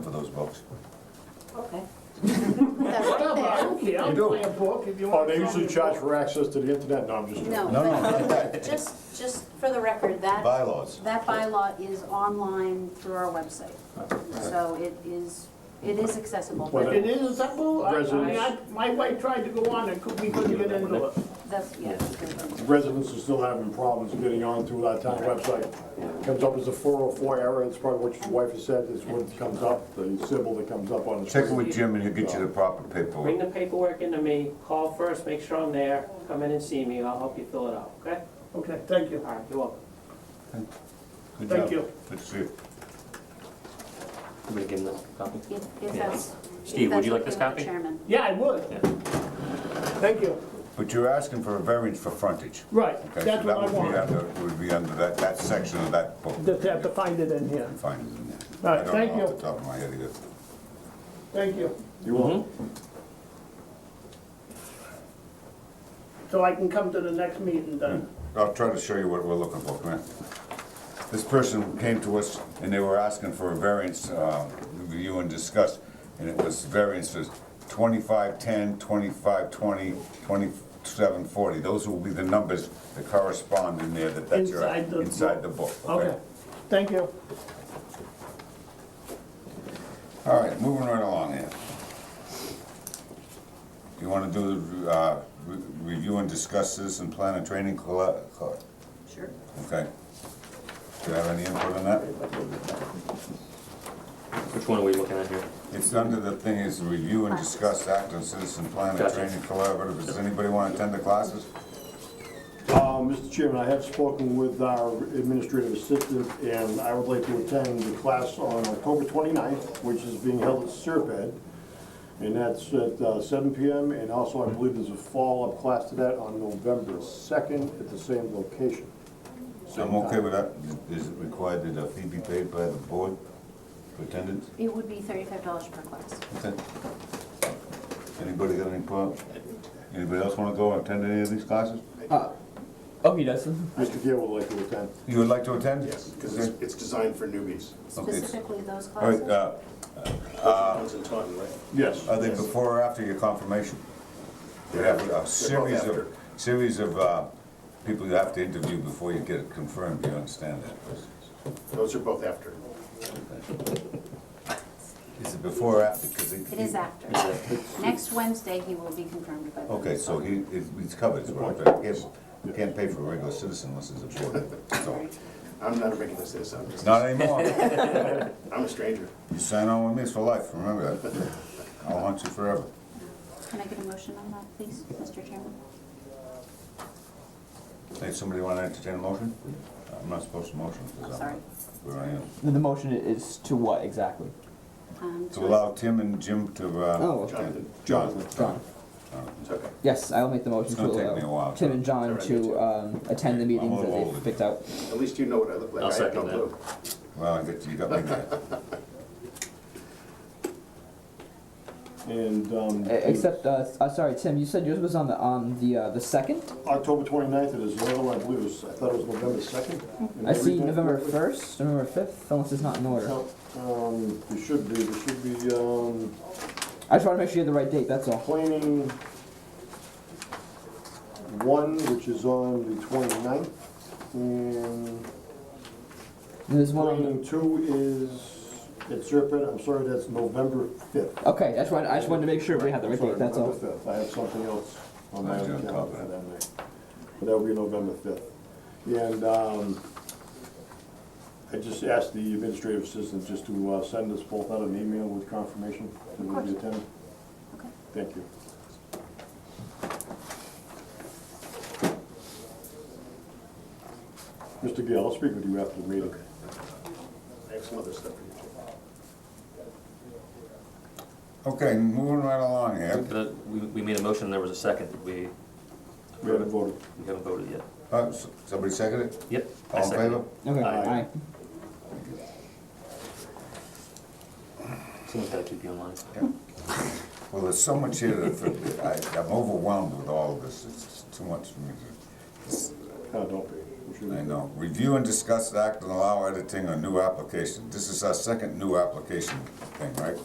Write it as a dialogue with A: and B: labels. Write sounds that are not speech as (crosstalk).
A: those books.
B: Okay.
C: That's right there.
D: I don't care, I'll
E: You do.
D: play a book if you
E: Oh,
D: want.
E: they usually charge for access to the internet, no, I'm just joking.
C: No,
A: No, no.
C: but just, just for the record, that,
A: Bylaws.
C: that bylaw is online through our website. So it is, it is accessible.
E: Well,
D: It is acceptable, I, I, mean, I-
E: Residents.
D: my wife tried to go on and could- we couldn't get into it.
C: That's, yeah. that's-
E: Residents are still having problems getting onto our town website. Comes up as a 404 error, it's probably what your wife has said, is what comes up, the symbol that comes up on the
A: Check it
E: screen.
A: with Jim and he'll get you the proper
D: Bring
A: paperwork.
D: the paperwork into me, call first, make sure I'm there, come in and see me, I'll help you fill it out, okay?
F: Okay, thank you.
D: All right, you're welcome.
A: Good
F: Thank
A: job.
F: you.
A: Good to see you.
G: I'm gonna give him the copy.
C: If if that's. if
G: Steve, would
C: that's
G: you like
C: okay with the
G: this copy?
C: Chairman.
F: Yeah, I would. Thank you.
A: But you're asking for a variance for frontage.
F: Right,
A: Okay, so
F: that's what I
A: that would be
F: want.
A: under- Would be under that, that section of that book.
F: Just have to find it in here.
A: Fine, isn't it?
F: All right, thank
A: I don't know off
F: you.
A: the top of my head either.
F: Thank you.
E: You won't.
F: So I can come to the next meeting then.
A: I'll try to show you what we're looking for, come here. This person came to us and they were asking for a variance, uh, review and discuss, and it was variances 2510, 2520, 2740. Those will be the numbers that correspond in there, that that's your,
F: Inside the book.
A: inside the book,
F: Okay,
A: Mm. okay?
F: thank you.
A: All right, moving right along here. You want to do, uh, re- review and discuss this and plan a training colla, colla-
C: Sure.
A: okay? Do you have any input on that?
G: Mm-hmm. Which one are we looking at here?
A: It's under the thing is review and discuss act on citizen plan and
G: Gotcha.
A: training collaborative. Does anybody want to attend the classes?
E: Uh, Mr. Chairman, I have spoken with our administrative assistant, and I would like to attend the class on October 29th, which is being held at Serpent, and that's at uh, 7 PM, and also I believe there's a follow-up class to that on November 2nd at the same location.
A: I'm okay with that. Is it required that a fee be paid by the board for attendance?
C: It would be thirty-five dollars per class.
A: Okay. Anybody got any problems? Anybody else want to go and attend any of these classes?
G: Oh, he doesn't.
E: Mr. Gill would like to attend.
A: You would like to attend?
H: Yes, because it's, it's designed for newbies.
A: Okay.
C: Specifically those
A: All right,
C: classes.
A: uh,
H: Those in Uh, Taunton, right?
E: Yes.
A: are they before or after your confirmation? We have a series
H: after.
A: of, series of uh, people you have to interview before you get it confirmed. Do you understand that?
H: Those are both after.
A: Is it before or after? 'Cause
C: It is after. Next Wednesday, he will be confirmed by the.
A: Okay, so he, it- it's covered, it's right, but you can't- you can't pay for a regular citizen unless it's a board, so,
H: I'm not a regular citizen, I'm just,
A: not anymore.
H: (laughs) I'm a stranger.
A: You sign on with me, it's for life, remember that. I'll haunt you forever.
C: Can I get a motion on that, please, Mr. Chairman?
A: Hey, somebody wanna entertain a motion? I'm not supposed to motion, because I'm.
C: Sorry.
A: Where I am.
I: The motion is to what exactly?
C: Um,
A: To allow Tim and Jim to, uh.
I: Oh, okay.
H: Jonathan,
A: John.
I: John.
H: it's okay.
I: Yes, I'll make the
A: Oh,
I: motion
A: It's
I: to
A: gonna take me a
I: allow
A: while,
I: Tim
A: so-
I: and John
H: It's all
I: to um, attend the meetings
A: a
I: that
A: little older.
I: they've picked out.
H: At least you know what I look like.
G: I'll
H: I have
G: second
H: no
G: that.
H: clue.
A: Well, I get, you got me there.
E: And, um,
I: E- Except, uh, s- uh, sorry, Tim, you said yours was on the, on the, uh, the second?
E: October 29th, it is, another one, I believe, it was- I thought it was November 2nd. Am
I: I see
E: reading that
I: November
E: correctly?
I: first, November fifth, unless it's not in order.
E: No, Um, it should be, it should be, um,
I: I just wanna make sure you have the right date, that's all.
E: planning one, which is on the 29th, and
I: And There's one on
E: planning two is at Serpent, I'm sorry, that's November 5th.
I: the, okay, I just wanted, I just wanted to make sure we had the right
E: Sorry,
I: date, that's all.
E: November 5th, I have something else on my
A: Mine's
E: other
A: on top of
E: calendar that night, but that'll be November 5th. And, um, I just asked the administrative assistant just to uh, send us both out an email with confirmation that we'll be
C: course.
E: attending.
C: Okay.
E: Thank you. Mr. Gill, I'll speak with you after the meeting.
H: I have some other stuff for you. too.
A: Okay, moving right along here.
G: Uh, We, we made a motion and there was a second. We,
E: We haven't voted.
G: we haven't voted yet.
A: Uh, s- somebody second it?
G: Yep. I
A: All in
G: second it.
A: favor?
I: Okay,
E: Aye.
I: aye.
G: Someone's gotta keep you in line.
A: Well, there's so much here that I, I'm overwhelmed with all of this, it's too much for me to.
E: No, uh, don't be. sure.
A: I know. Review and discuss act and allow editing on new application. This is our second new application thing, right?